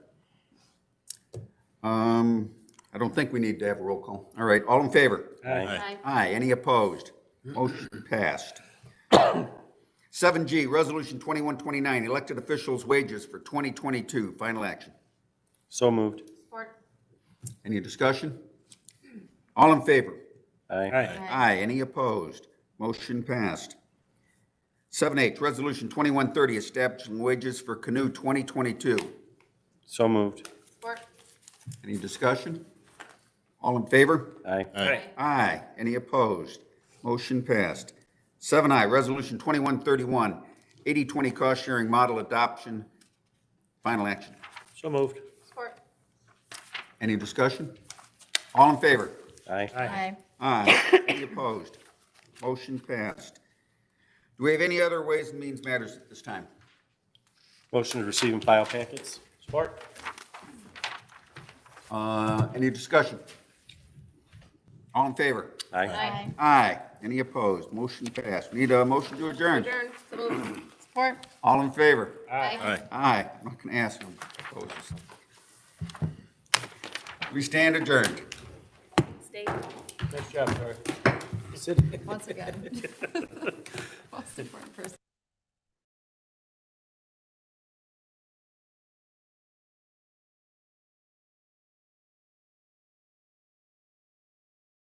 Um, I don't think we need to have a roll call. All right, all in favor? Aye. Aye, any opposed? Motion passed. Seven G, Resolution twenty-one twenty-nine, elected officials' wages for twenty twenty-two, final action. So moved. Support. Any discussion? All in favor? Aye. Aye, any opposed? Motion passed. Seven H, Resolution twenty-one thirty, establishing wages for canoe twenty twenty-two. So moved. Support. Any discussion? All in favor? Aye. Aye. Aye. Any opposed? Motion passed. Seven I, Resolution 2131, 80/20 cost-sharing model adoption, final action. So moved. Support. Any discussion? All in favor? Aye. Aye. Aye. Any opposed? Motion passed. Do we have any other Ways and Means Matters at this time? Motion to receive and file packets. Support. Uh, Any discussion? All in favor? Aye. Aye. Aye. Any opposed? Motion passed. We Need a motion to adjourn? Adjourn. So moved. Support. All in favor? Aye. Aye, I'm not going to ask them. Opposes. We stand adjourned. Stay Nice job, Tori. once again. Most important person.